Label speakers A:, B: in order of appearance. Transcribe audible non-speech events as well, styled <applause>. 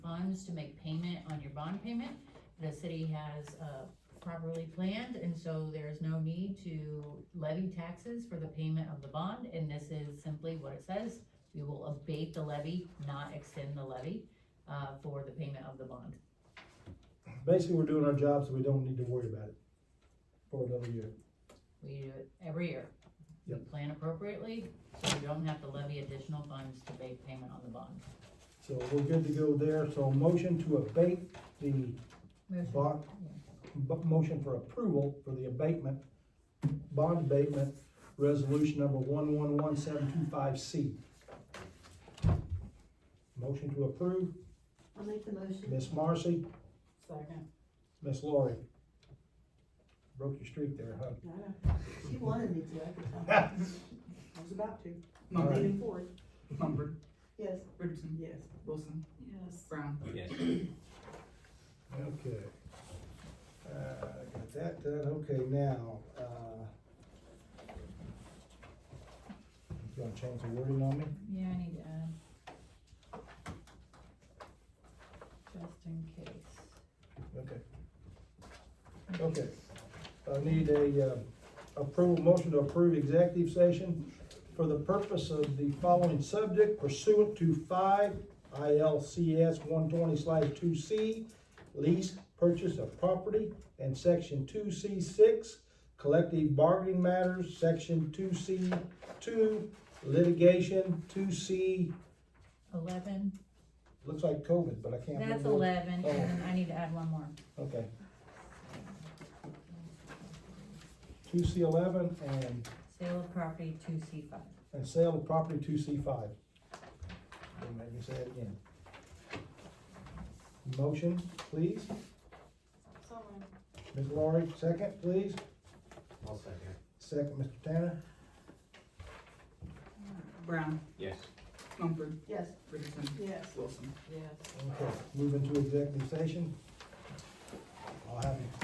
A: plans to make payment on your bond payment. The city has, uh, properly planned, and so there's no need to levy taxes for the payment of the bond, and this is simply what it says. We will abate the levy, not extend the levy, uh, for the payment of the bond.
B: Basically, we're doing our job, so we don't need to worry about it for another year.
A: We do it every year. We plan appropriately, so we don't have to levy additional funds to make payment on the bond.
B: So we're good to go there, so motion to abate the bond, b- motion for approval for the abatement, bond abatement, resolution number one one one seven two five C. Motion to approve,
C: I'll make the motion.
B: Miss Marcy,
C: Second.
B: Miss Lori. Broke your streak there, huh?
C: I know. She wanted me to, I could
D: <laughs>
C: tell. I was about to.
B: All right.
C: Leaning forward.
D: Mumford,
C: Yes.
D: Richardson. Yes. Wilson,
C: Yes.
D: Brown.
E: Yes.
B: Okay. Uh, got that done, okay, now, uh. You wanna change the wording on me?
A: Yeah, I need to add. Just in case.
B: Okay. Okay. I need a, uh, approval, motion to approve executive session for the purpose of the following subject pursuant to five ILCS one twenty slash two C, lease, purchase of property, and section two C six, collective bargaining matters, section two C two, litigation, two C,
A: Eleven,
B: looks like COVID, but I can't remember.
A: that's
B: what-
A: eleven, and then I need to add one more.
B: Okay. Two C eleven and,
A: Sale of property, two C five.
B: and sale of property two C five. Don't make me say it again. Motion, please. Ms. Laurie, second, please.
E: I'll second.
B: Second, Mr. Tanner.
D: Brown,
E: Yes.
D: Mumford,
C: Yes.
D: Richardson,
C: Yes.
D: Wilson.
C: Yes.
B: Okay, move into executive session. I'll have you